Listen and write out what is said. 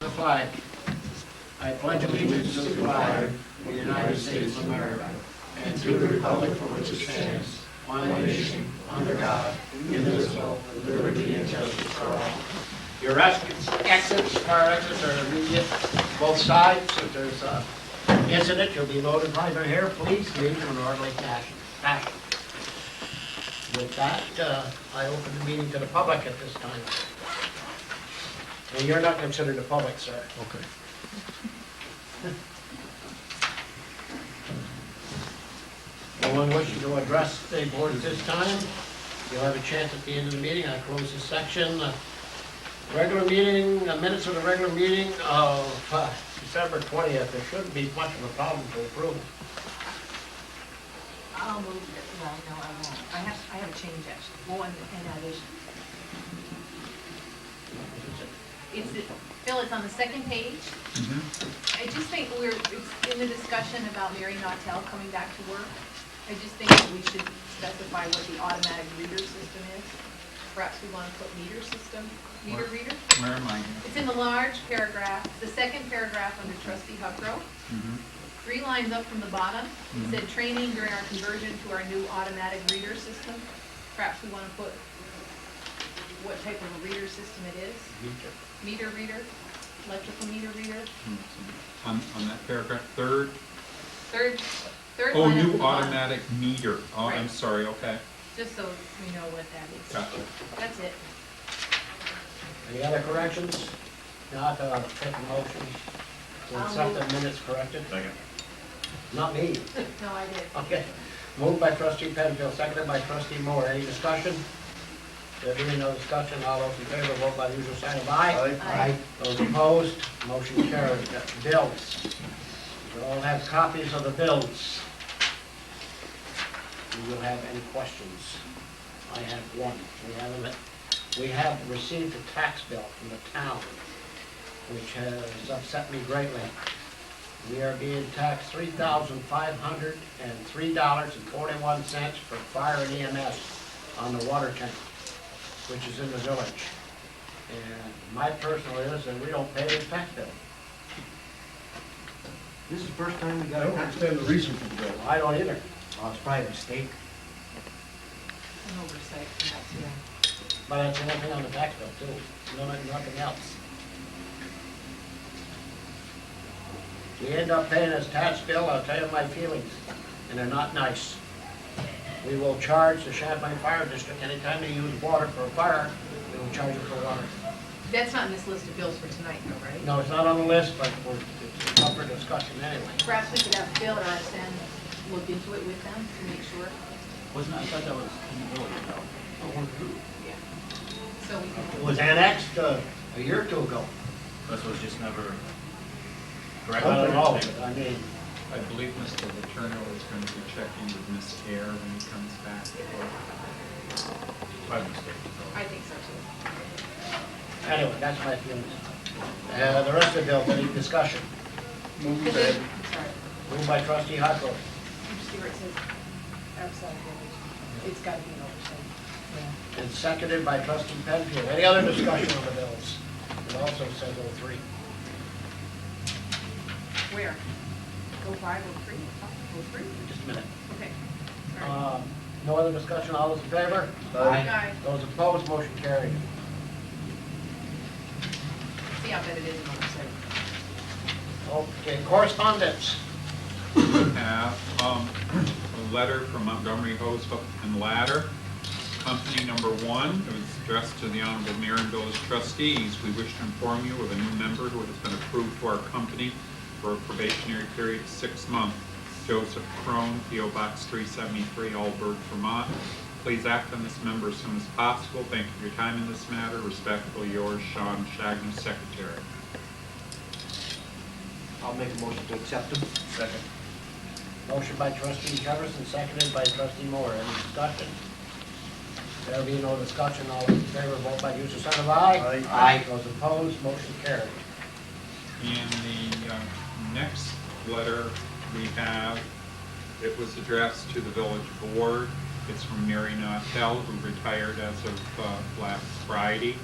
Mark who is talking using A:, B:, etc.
A: flag. I pledge allegiance to the flag of the United States of America and to the republic for which it stands, one nation, under God, indivisible, with liberty and justice for all. Your exits, exits, car exits are immediate, both sides. If there's a incident, you'll be notified right here. Please leave in an orderly fashion. fashion. With that, uh, I open the meeting to the public at this time. And you're not considered the public, sir.
B: Okay.
A: No one wishing to address the board at this time. You'll have a chance at the end of the meeting. I close this section. Uh, Regular meeting, uh, minutes of the regular meeting of uh, December 20th. There shouldn't be much of a problem to approve.
C: I'll move, it. well, no, I won't. I have, I have a change actually, one and addition. It's, Phil, it's on the second page. I just think we're, it's in the discussion about Mary Nautel coming back to work. I just think that we should specify what the automatic reader system is. Perhaps we want to put meter system, meter
B: What?
C: reader.
B: Where am I?
C: It's in the large paragraph, the second paragraph under trustee Huckrow
B: Mm-hmm.
C: three lines up from the bottom, it said training during our conversion to our new automatic reader system. Perhaps we want to put what type of a reader system it is, meter reader, electrical meter reader,
B: On, on that paragraph, third,
C: third, third
B: oh,
C: line up from
B: new
C: the bottom.
B: automatic meter. Oh, I'm
C: Right.
B: sorry, okay,
C: Just so we know what that is.
B: gotcha.
C: That's it.
A: Any other corrections? Not, uh, take a motion to accept the minutes corrected.
D: Second.
A: Not me.
C: No, I did.
A: Okay. Moved by trustee Penfield, seconded by trustee Moore. Any discussion? There being no discussion, all those in favor, vote by the usual sign of aye.
C: Aye.
A: Those opposed, motion carried. Bills. We all have copies of the bills. Do you have any questions? I have one. We haven't, we have received a tax bill from the town, which has upset me greatly. We are being taxed three thousand five hundred and three dollars and forty-one cents for fire and EMS on the water tank, which is in the village. And my personal is that we don't pay the tax bill.
E: This is the first time we
F: I
E: got a
F: don't
E: tax.
F: understand the reason for the bill.
A: I don't either.
E: Well, it's probably a mistake.
C: An oversight, perhaps, yeah.
A: But it's the one thing on the tax bill too, no, nothing else. We end up paying this tax bill, I'll tell you my feelings, and they're not nice. We will charge the Champlain Fire District, anytime they use water for a fire, we will charge them for water.
C: That's not in this list of bills for tonight, though, right?
A: No, it's not on the list, but we're, it's up for discussion anyway.
C: Perhaps we could have Phil or Sam look into it with them to make sure.
G: Wasn't, I thought that was in the village, though.
C: Yeah. So we can.
A: It was annexed, uh, a year or two ago.
G: This was just never
A: I
G: corrected.
A: don't know, but I mean,
B: I believe Mr. Letourneau is going to be checking with Miss Air when he comes back.
G: By mistake.
C: I think so too.
A: anyway, that's my feelings. Uh, the rest of the bill, any discussion?
C: Because it- I'm sorry,
A: Moved by trustee Huckrow,
C: you see where it says outside village, it's gotta be an oversight. Yeah.
A: And seconded by trustee Penfield. Any other discussion on the bills? It also says oh three.
C: Where? Go five or three, go three,
A: Just a minute.
C: okay. All right.
A: Um, No other discussion, all those in favor?
C: Aye.
A: Those opposed, motion carried.
C: See, I bet it is an oversight.
A: Okay, correspondence.
B: We have, um, a letter from Montgomery Hose Hook and Ladder, company number one. It was addressed to the Honorable Mayor and Village Trustees. We wish to inform you of a new member who has been approved to our company for a probationary period of six months. Joseph Crone, PO Box 373, Allberg, Vermont. Please act on this member as soon as possible. Thank you for your time in this matter. Respectfully yours, Sean Shagner, Secretary.
E: I'll make a motion to accept them.
D: Second.
A: Motion by trustee Jefferson, seconded by trustee Moore. Any discussion? There be no discussion, all those in favor, vote by usual sign of aye.
D: Aye.
E: Aye.
A: Those opposed, motion carried.
B: In the uh, next letter we have, it was addressed to the village board. It's from Mary Nautel, who retired as of uh, last Friday.